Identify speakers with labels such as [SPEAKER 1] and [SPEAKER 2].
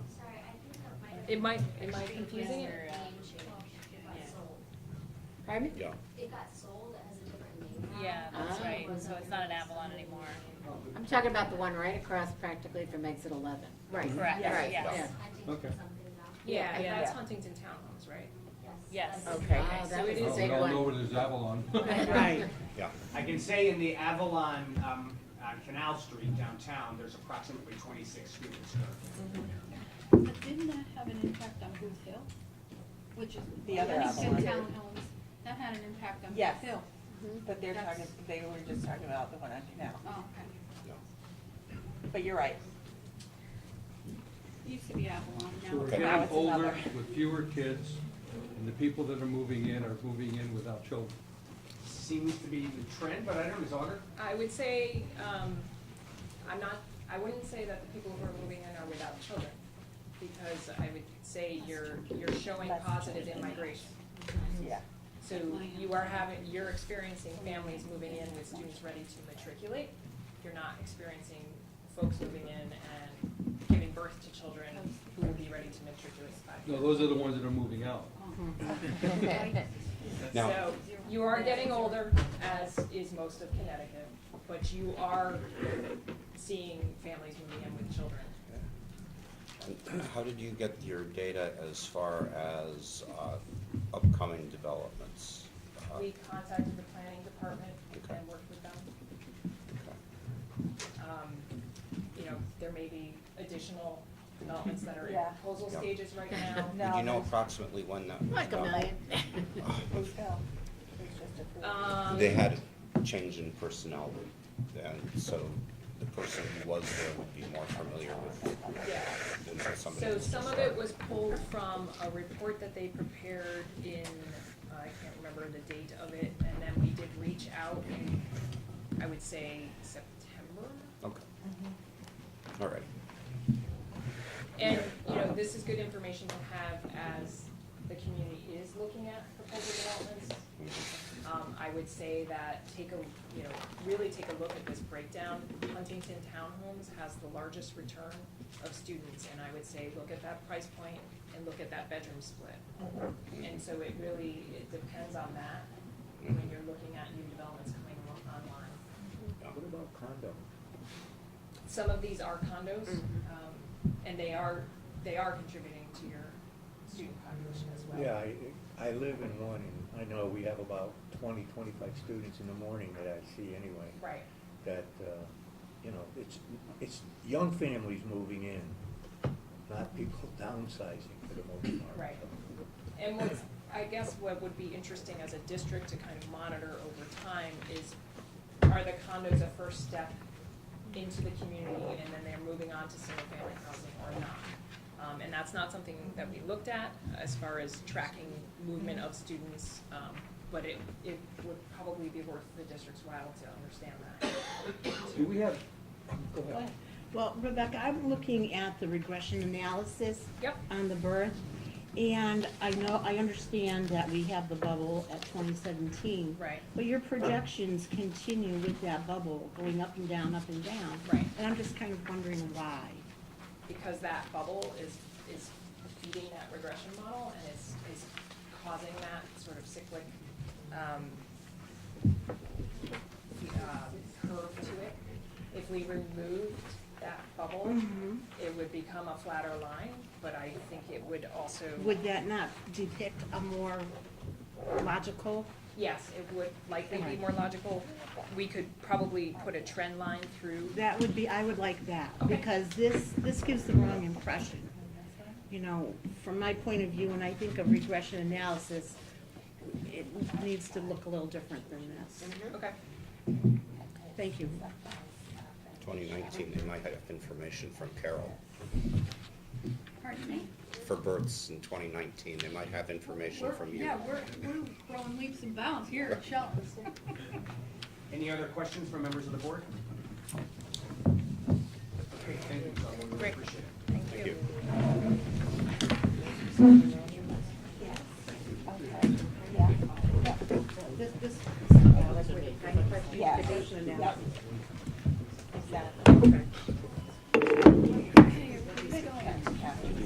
[SPEAKER 1] It might, am I confusing
[SPEAKER 2] um,
[SPEAKER 1] it? Pardon?
[SPEAKER 3] Yeah.
[SPEAKER 2] It got sold, it has a different name now.
[SPEAKER 4] Yeah, that's
[SPEAKER 1] Ah.
[SPEAKER 4] right, so it's not an Avalon anymore.
[SPEAKER 1] I'm talking about the one right across practically from exit eleven. Right.
[SPEAKER 4] Correct,
[SPEAKER 1] Right,
[SPEAKER 4] yes.
[SPEAKER 2] I think
[SPEAKER 5] Okay.
[SPEAKER 2] it's something now.
[SPEAKER 6] Yeah,
[SPEAKER 1] Yeah,
[SPEAKER 6] that's
[SPEAKER 1] yeah.
[SPEAKER 6] Huntington Townhomes, right?
[SPEAKER 4] Yes.
[SPEAKER 2] that's-
[SPEAKER 1] Okay. Wow, Ah, that was a
[SPEAKER 5] Oh, We
[SPEAKER 1] big
[SPEAKER 5] all know
[SPEAKER 1] one.
[SPEAKER 5] it is Avalon.
[SPEAKER 1] Right.
[SPEAKER 3] Yeah.
[SPEAKER 7] I can say in the Avalon, um, on Canal Street downtown, there's approximately twenty-six students currently.
[SPEAKER 8] But didn't that have an impact on Booth Hill? Which is.
[SPEAKER 9] The other
[SPEAKER 8] Huntington
[SPEAKER 9] Avalon.
[SPEAKER 8] Townhomes, that had an impact on
[SPEAKER 9] Yes.
[SPEAKER 8] Booth Hill.
[SPEAKER 9] But they're
[SPEAKER 8] That's-
[SPEAKER 9] talking, they were just talking about the one on Canal,
[SPEAKER 8] Oh, okay.
[SPEAKER 9] but you're right.
[SPEAKER 8] Used to be Avalon,
[SPEAKER 5] So
[SPEAKER 8] now
[SPEAKER 5] we're
[SPEAKER 8] it's.
[SPEAKER 9] Now
[SPEAKER 5] getting
[SPEAKER 9] it's
[SPEAKER 5] older
[SPEAKER 9] another.
[SPEAKER 5] with fewer kids, and the people that are moving in are moving in without children.
[SPEAKER 7] Seems to be the trend, but I don't know, Ms. Augur?
[SPEAKER 6] I would say, um, I'm not, I wouldn't say that the people who are moving in are without children, because I would say you're, you're showing
[SPEAKER 9] That's
[SPEAKER 6] positive
[SPEAKER 9] children.
[SPEAKER 6] in migration.
[SPEAKER 9] Yeah.
[SPEAKER 6] So you are having, you're experiencing families moving in with students ready to matriculate. You're not experiencing folks moving in and giving birth to children who will be ready to matriculate in five
[SPEAKER 5] No,
[SPEAKER 6] years.
[SPEAKER 5] those are the ones that are moving out.
[SPEAKER 3] Now-
[SPEAKER 6] So you are getting older, as is most of Connecticut, but you are seeing families moving in with children.
[SPEAKER 3] How did you get your data as far as uh, upcoming developments? Uh,
[SPEAKER 6] We contacted the planning department
[SPEAKER 3] Okay.
[SPEAKER 6] and worked with them.
[SPEAKER 3] okay.
[SPEAKER 6] Um, You know, there may be additional developments that are in
[SPEAKER 9] Yeah.
[SPEAKER 6] proposal
[SPEAKER 3] Yeah.
[SPEAKER 6] stages right now.
[SPEAKER 3] Did
[SPEAKER 9] No,
[SPEAKER 3] you know
[SPEAKER 9] there's-
[SPEAKER 3] approximately when that was
[SPEAKER 1] Like a
[SPEAKER 3] done?
[SPEAKER 1] million.
[SPEAKER 9] Booth Hill, it was just approved.
[SPEAKER 6] Um,
[SPEAKER 3] They had a change in personnel, and so the person who was there would be more familiar with
[SPEAKER 6] Yeah.
[SPEAKER 3] than with somebody
[SPEAKER 6] So
[SPEAKER 3] who's
[SPEAKER 6] some
[SPEAKER 3] just
[SPEAKER 6] of
[SPEAKER 3] started.
[SPEAKER 6] it was pulled from a report that they prepared in, I can't remember the date of it, and then we did reach out in, I would say, September.
[SPEAKER 3] Okay.
[SPEAKER 6] Mm-hmm.
[SPEAKER 3] All right.
[SPEAKER 6] And, you know, this is good information to have as the community is looking at proposal developments. Um, I would say that take a, you know, really take a look at this breakdown. Huntington Townhomes has the largest return of students, and I would say, look at that price point and look at that bedroom split. And so it really, it depends on that when you're looking at new developments coming on- online.
[SPEAKER 3] What about condo?
[SPEAKER 6] Some of these are condos, um, and they are, they are contributing to your student population as well.
[SPEAKER 10] Yeah, I, I live in one, and I know we have about twenty, twenty-five students in the morning that I see anyway.
[SPEAKER 6] Right,
[SPEAKER 10] That, uh, you know, it's, it's young families moving in, not people downsizing for the most part.
[SPEAKER 6] Right. And what's, I guess what would be interesting as a district to kind of monitor over time is, are the condos a first step into the community and then they're moving on to single-family housing or not? Um, and that's not something that we looked at as far as tracking movement of students, um, but it, it would probably be worth the district's while to understand that.
[SPEAKER 5] Do we have, go ahead.
[SPEAKER 11] Well, Rebecca, I'm looking at the regression analysis
[SPEAKER 6] Yep,
[SPEAKER 11] on the birth, and I know, I understand that we have the bubble at twenty seventeen,
[SPEAKER 6] right,
[SPEAKER 11] but your projections continue with that bubble, going up and down, up and down.
[SPEAKER 6] Right.
[SPEAKER 11] And I'm just kind of wondering why.
[SPEAKER 6] because that bubble is, is feeding that regression model and is, is causing that sort of cyclic, um, uh, curve to it. If we removed that bubble,
[SPEAKER 11] Mm-hmm.
[SPEAKER 6] it would become a flatter line, but I think it would also,
[SPEAKER 11] Would that not depict a more logical?
[SPEAKER 6] yes, it would likely be more logical. We could probably put a trend line through.
[SPEAKER 11] That would be, I would like that,
[SPEAKER 6] Okay.
[SPEAKER 11] because this, this gives the wrong impression. You know, from my point of view, when I think of regression analysis, it needs to look a little different than this.
[SPEAKER 6] Okay,
[SPEAKER 11] Thank you.
[SPEAKER 3] Twenty nineteen, they might have information from Carol.
[SPEAKER 8] Pardon me?
[SPEAKER 3] For births in twenty nineteen, they might have information
[SPEAKER 8] We're-
[SPEAKER 3] from you.
[SPEAKER 8] Yeah, we're, we're growing leaps and bounds here at Shells.
[SPEAKER 7] Any other questions from members of the board? Okay, thank you, Ms. Augur, we
[SPEAKER 6] Great.
[SPEAKER 7] appreciate it.
[SPEAKER 3] Thank you.